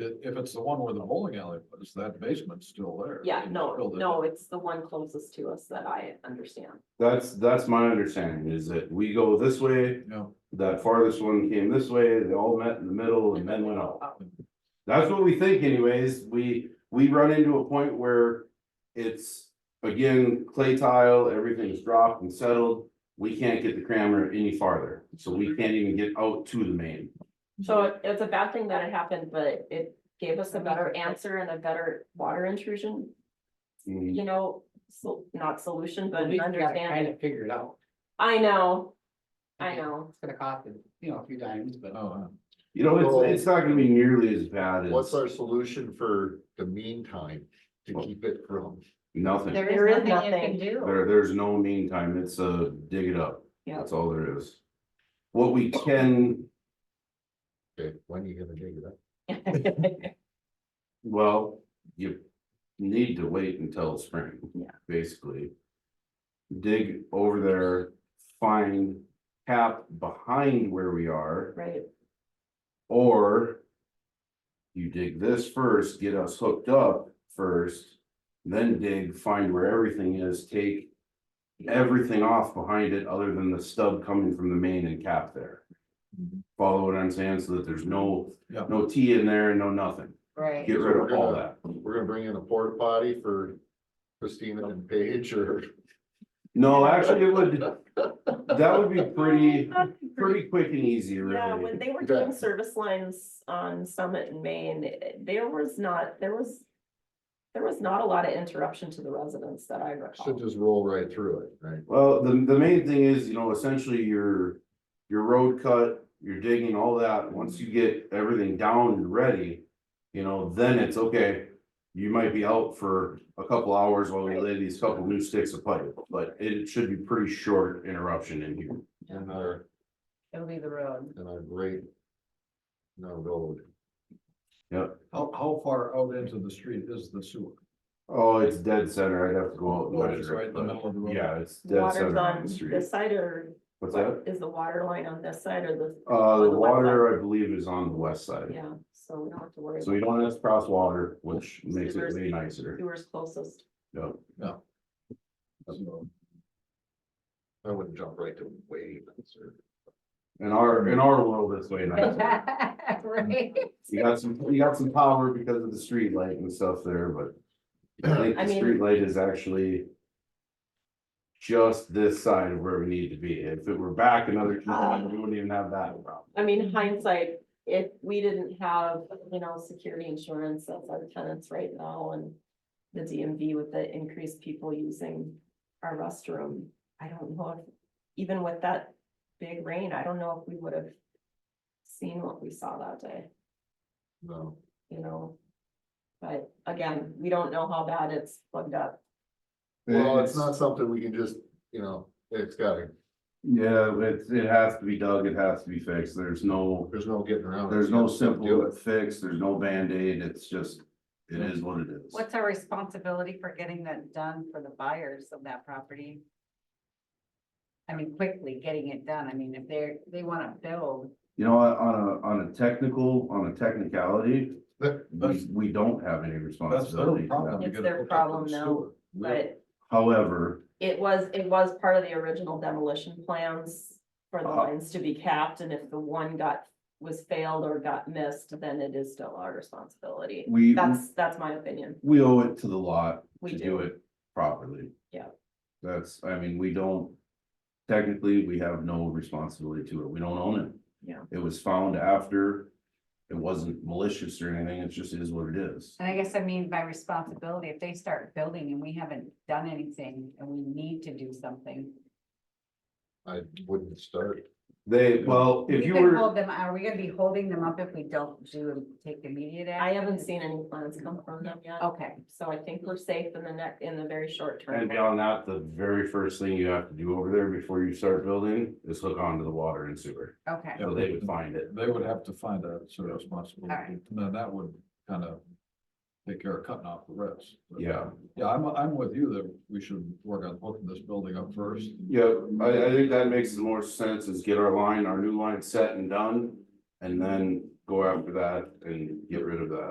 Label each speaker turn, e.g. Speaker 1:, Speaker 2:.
Speaker 1: If, if it's the one where the bowling alley was, that basement's still there.
Speaker 2: Yeah,
Speaker 1: They
Speaker 2: no,
Speaker 1: filled it
Speaker 2: no,
Speaker 1: up.
Speaker 2: it's the one closest to us that I understand.
Speaker 3: That's, that's my understanding, is that we go this way,
Speaker 1: Yeah,
Speaker 3: that farthest one came this way, they all met in the middle and then went out.
Speaker 2: Oh,
Speaker 3: That's what we think anyways, we, we run into a point where it's, again, clay tile, everything's dropped and settled. We can't get the crammer any farther, so we can't even get out to the main.
Speaker 2: So it- it's a bad thing that it happened, but it gave us a better answer and a better water intrusion,
Speaker 3: Mm,
Speaker 2: you know, so, not solution, but
Speaker 4: But we gotta kind
Speaker 2: understanding.
Speaker 4: of figure it out.
Speaker 2: I know, I
Speaker 4: Okay,
Speaker 2: know.
Speaker 4: It's gonna cost, you know, a few dimes, but.
Speaker 1: oh,
Speaker 3: You know, it's, it's not gonna be nearly as bad
Speaker 5: What's
Speaker 3: as
Speaker 5: our solution for the meantime to keep it from?
Speaker 3: nothing. There,
Speaker 2: There is nothing.
Speaker 6: do.
Speaker 3: there's no meantime, it's a dig it up.
Speaker 2: Yeah.
Speaker 3: That's all there is. What we can,
Speaker 5: Okay, when are you gonna dig it up?
Speaker 3: well, you need to wait until spring.
Speaker 2: Yeah.
Speaker 3: Basically. Dig over there, find cap behind where we are,
Speaker 2: Right,
Speaker 3: or. You dig this first, get us hooked up first, then dig, find where everything is, take. Everything off behind it, other than the stub coming from the main and cap there. Follow what I'm saying, so that there's no,
Speaker 1: Yeah.
Speaker 3: no T in there and no nothing,
Speaker 6: Right.
Speaker 3: get rid of all that.
Speaker 5: We're gonna bring in a porta potty for Christina and Paige or?
Speaker 3: No, actually, it would, that would be pretty, pretty quick and easy,
Speaker 2: yeah, when
Speaker 3: really.
Speaker 2: they were
Speaker 5: Yeah.
Speaker 2: doing service lines on Summit in Maine, it- there was not, there was. There was not a lot of interruption to the residents that I
Speaker 5: Should
Speaker 2: recall.
Speaker 5: just roll right through it, right?
Speaker 3: Well, the, the main thing is, you know, essentially your, your road cut, your digging, all that, once you get everything down and ready. You know, then it's okay, you might be out for a couple hours while we lay these couple new sticks of pipe, but it should be pretty short interruption in here.
Speaker 5: And our,
Speaker 6: It'll be the road.
Speaker 5: and our great. No road,
Speaker 1: How, how far out into the street is the sewer?
Speaker 3: Oh, it's dead center, I'd have to go out and
Speaker 1: Well, it's
Speaker 3: measure
Speaker 1: right
Speaker 3: it,
Speaker 1: in the
Speaker 3: but,
Speaker 1: middle of the road.
Speaker 3: yeah, it's dead
Speaker 2: Water's
Speaker 3: center on
Speaker 2: on
Speaker 3: the street.
Speaker 2: this side or
Speaker 3: What's that?
Speaker 2: is the water line on this side or the,
Speaker 3: Uh, the
Speaker 2: On the west
Speaker 3: water, I believe, is on the west side.
Speaker 2: yeah, so we don't have to worry.
Speaker 3: So you don't have to cross water, which makes it
Speaker 2: Sewer's-
Speaker 3: way nicer.
Speaker 2: Viewers closest.
Speaker 3: Yeah.
Speaker 1: So,
Speaker 5: I wouldn't jump right to wave. or-
Speaker 3: In our, in our world, it's way nicer.
Speaker 6: Right.
Speaker 3: You got some, you got some power because of the street light and stuff there, but I think
Speaker 2: I
Speaker 3: the
Speaker 2: mean-
Speaker 3: street light is actually just this side of where we need to be. If it were back another, two
Speaker 2: Ah.
Speaker 3: miles, we wouldn't even have that problem.
Speaker 2: I mean hindsight, if we didn't have, you know, security insurance of our tenants right now and. The DMV with the increased people using our restroom, I don't know if, even with that big rain, I don't know if we would have. Seen what we saw that day,
Speaker 5: No,
Speaker 2: you know. But again, we don't know how bad it's plugged up.
Speaker 5: well, it's not something we can just, you know, it's gotta,
Speaker 3: Yeah, it's, it has to be dug, it has to be fixed. There's no,
Speaker 5: there's no getting around. it.
Speaker 3: there's no
Speaker 5: Do
Speaker 3: simple
Speaker 5: it.
Speaker 3: fix, there's no Band-Aid, it's just, it is what it is.
Speaker 6: What's our responsibility for getting that done for the buyers of that property? I mean, quickly getting it done. I mean, if they're, they wanna build,
Speaker 3: You know, on- on a, on a technical, on a technicality,
Speaker 1: that-
Speaker 3: we,
Speaker 1: That's,
Speaker 3: we don't have any
Speaker 1: that's their
Speaker 3: responsibility. for
Speaker 1: problem.
Speaker 3: that.
Speaker 1: to
Speaker 2: It's
Speaker 1: get
Speaker 2: their
Speaker 1: hooked up to
Speaker 2: problem
Speaker 1: the
Speaker 2: now,
Speaker 1: sewer. We-
Speaker 2: But
Speaker 3: However,
Speaker 2: It was, it was part of the original demolition plans for the
Speaker 3: Uh-huh.
Speaker 2: lines to be capped, and if the one got, was failed or got missed, then it is still our responsibility.
Speaker 3: we,
Speaker 2: That's, that's my opinion.
Speaker 3: we owe it to the lot
Speaker 2: We
Speaker 3: to do
Speaker 2: do.
Speaker 3: it properly.
Speaker 2: Yeah.
Speaker 3: That's, I mean, we don't, technically, we have no responsibility to it. We don't own it.
Speaker 2: Yeah.
Speaker 3: It was found after, it wasn't malicious or anything. It just is what it is.
Speaker 6: and I guess I mean by responsibility, if they start building and we haven't done anything and we need to do something.
Speaker 5: I wouldn't start.
Speaker 3: They, well, if
Speaker 6: we
Speaker 3: you
Speaker 6: could
Speaker 3: were.
Speaker 6: Hold them, are we gonna be holding them up if we don't do and take immediate action?
Speaker 2: I haven't seen any plans come from them yet,
Speaker 3: Oh.
Speaker 6: Okay,
Speaker 2: so I think we're safe in the neck, in the very short
Speaker 3: And
Speaker 2: term.
Speaker 3: beyond that, the very first thing you have to do over there before you start building is hook onto the water and sewer,
Speaker 6: okay.
Speaker 3: so they would find it.
Speaker 1: They would have to find a sort of responsibility,
Speaker 6: Alright.
Speaker 1: and then that would kind of take care of cutting off the rest. But-
Speaker 3: Yeah.
Speaker 1: Yeah, I'm, I'm with you that we should work on hooking this building up first.
Speaker 3: Yeah, I, I think that makes the more sense is get our line, our new line set and done, and then go after that and get rid of that.